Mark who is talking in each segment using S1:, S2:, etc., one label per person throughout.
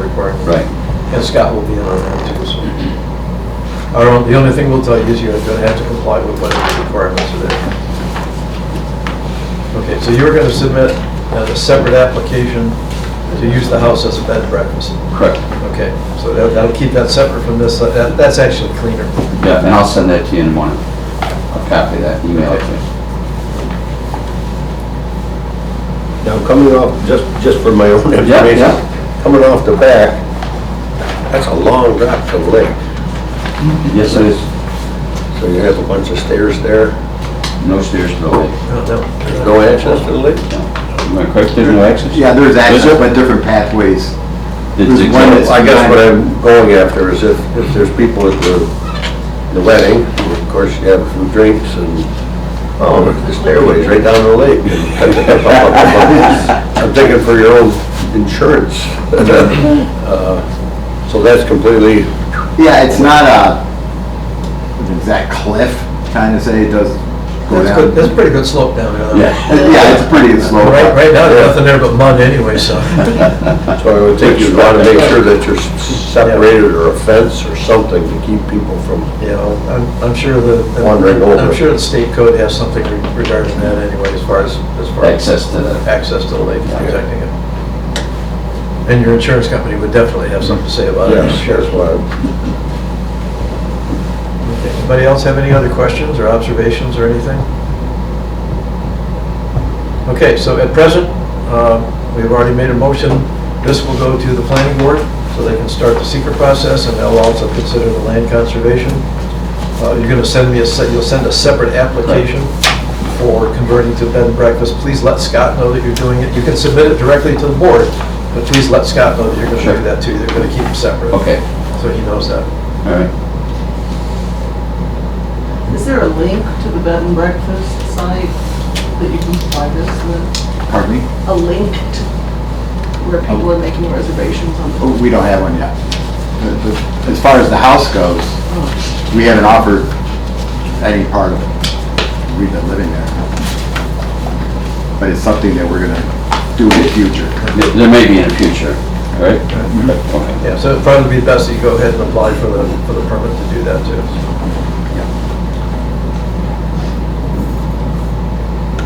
S1: report.
S2: Right.
S1: And Scott will be in on that too, so. Our own- the only thing we'll tell you is you're gonna have to comply with whatever requirements are there. Okay, so you're gonna submit as a separate application to use the house as a bed and breakfast.
S2: Correct.
S1: Okay, so that- that'll keep that separate from this, uh, That- that's actually cleaner.
S2: Yeah, and I'll send that to you in the morning. I'll copy that, email it to you.
S3: Now, coming off, just, just for my own
S2: Yeah,
S3: information,
S2: yeah.
S3: coming off the back, that's a long drop to the lake.
S2: Yes, it is.
S3: So you have a bunch of stairs there,
S2: No stairs to the lake.
S1: No, no.
S3: there's no access to the lake?
S2: Am I correct? There's no access?
S4: Yeah, there's
S2: Is
S4: access,
S2: it?
S4: but different pathways.
S2: It's
S4: There's
S2: exact-
S4: one that's-
S3: I guess what I'm going after is if, if there's people at the, the wedding, of course you have some drinks and, oh, look at the stairways right down the lake. I'm thinking for your own insurance. Uh, So that's completely,
S4: Yeah, it's not a, an exact cliff, kind of say, it does go
S1: That's good,
S4: down.
S1: that's a pretty good slope down there.
S2: Yeah.
S4: Yeah, it's pretty slow.
S1: Right, right now, there's nothing there but mud anyway, so.
S3: so I would think you'd want to make sure that you're separated or a fence or something to keep people from,
S1: Yeah, I'm, I'm sure the.
S3: Wandering over.
S1: I'm sure the state code has something regarding that anyway, as far as, as far as.
S2: Access to the,
S1: access to the lake, protecting it. And your insurance company would definitely have something to say about it.
S3: yeah, that's why.
S1: Okay. Anybody else have any other questions or observations or anything? Okay, so at present, uh, we've already made a motion. This will go to the planning board, so they can start the secret process, and they'll also consider the land conservation. Uh, You're going to send me a, se- you'll send a separate application for converting to bed and breakfast. Please let Scott know that you're doing it. You can submit it directly to the board, but please let Scott know that you're going to do
S2: Sure.
S1: that too. They're going to keep them separate.
S2: okay,
S1: So he knows that.
S2: all right.
S5: Is there a link to the bed and breakfast site that you can find us with?
S4: Pardon me?
S5: A link to where people are making reservations on the...
S4: Oh, We don't have one yet. The- the- As far as the house goes, we haven't offered any part of it. We've been living there. But it's something that we're gonna do in the future.
S2: There- There may be in the future, all right?
S4: Mm-hmm.
S2: Okay.
S1: Yeah, so it'd probably be best that you go ahead and apply for the, for the permit to do that too.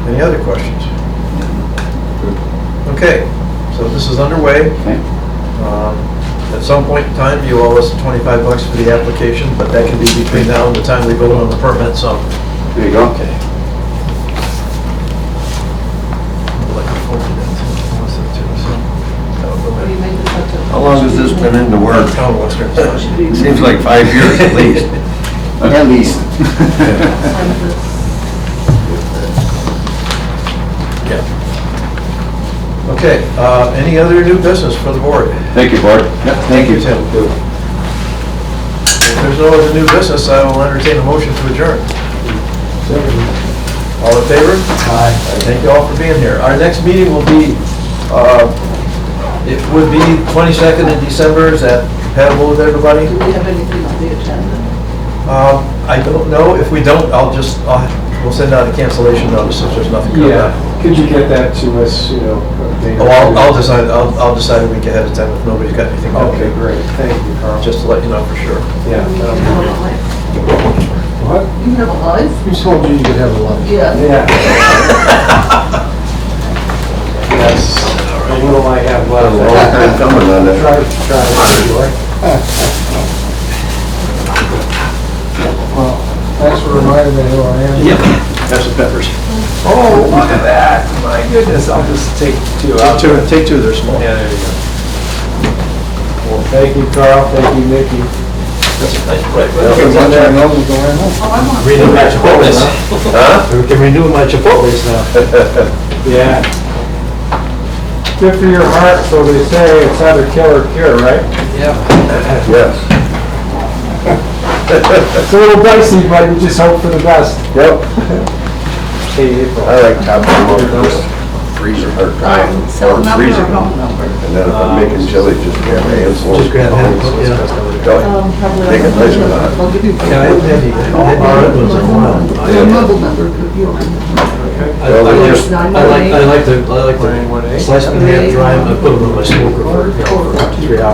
S1: Any other questions? Okay, so this is underway.
S2: Okay.
S1: Um, At some point in time, you owe us 25 bucks for the application, but that can be between now and the time we vote on the permit, so.
S2: There you go.
S1: Okay. I'll let you forward that to Melissa, too, so that'll go
S5: What do you
S1: in.
S5: make this up to?
S3: How long has this been in the works?
S1: Town Western. so.
S5: Should we
S3: Seems like five years at least.
S4: At least.
S5: sign this?
S1: Yeah. Okay, uh, any other new business for the board?
S2: Thank you, Board.
S1: Thank you, Tim. If there's no other new business, I will entertain a motion to adjourn. All in favor? Aye. Thank you all for being here. Our next meeting will be, uh, it would be 22nd in December, is that compatible with everybody?
S5: Do we have anything on the agenda?
S1: Um, I don't know, if we don't, I'll just, I'll- we'll send out a cancellation notice if there's nothing coming up.
S6: Yeah, could you get that to us, you know? a day or
S1: Oh, I'll, I'll
S6: two?
S1: decide, I'll, I'll decide a week ahead of time if nobody's got anything. to
S6: Okay,
S1: do.
S6: great, thank you, Carl.
S1: Just to let you know for sure.
S6: Yeah.
S5: You can
S6: um,
S5: have a life.
S6: What?
S5: You can have a life?
S6: Who told you you could have a lunch?
S5: Yeah.
S6: Yeah. Yes, what will I have
S3: A long
S6: left?
S3: time coming on that.
S6: Try, try to enjoy. Well, thanks for reminding me who I am.
S1: Have some peppers.
S6: Oh, look at that, my goodness, I'll just take two out.
S1: Take two, take two, they're small.
S6: Yeah, there you go. Well, thank you, Carl, thank you, Nikki.
S1: Right.
S6: there, no, we're going home.
S5: Oh, I want...
S1: Renew my Chipotle's. Huh? We can renew my Chipotle's now.
S6: Yeah. Good for your heart, so they say, it's either kill or cure, right?
S3: Yes,
S6: It's a little dicey, but you just hope for the best.
S3: yep,
S6: Hey, April.
S3: I like top of freezer hard time.
S5: Cell
S3: Or
S5: number or
S3: freezer.
S5: home number?
S3: And then if I'm making chili, just grab a handful.
S1: Just grab a handful,
S6: Oh,
S3: handful,
S5: probably.
S3: Take a nice one out.
S5: I'll give you...
S1: Yeah, I haven't had the- I haven't had the red ones in a while.
S5: Your mobile number, if you want.
S1: I I like, I like, I like to, I like
S6: Nine one
S1: to
S6: eight.
S1: slice them, and dry them, I put them in my smoker for, you know, for three hours.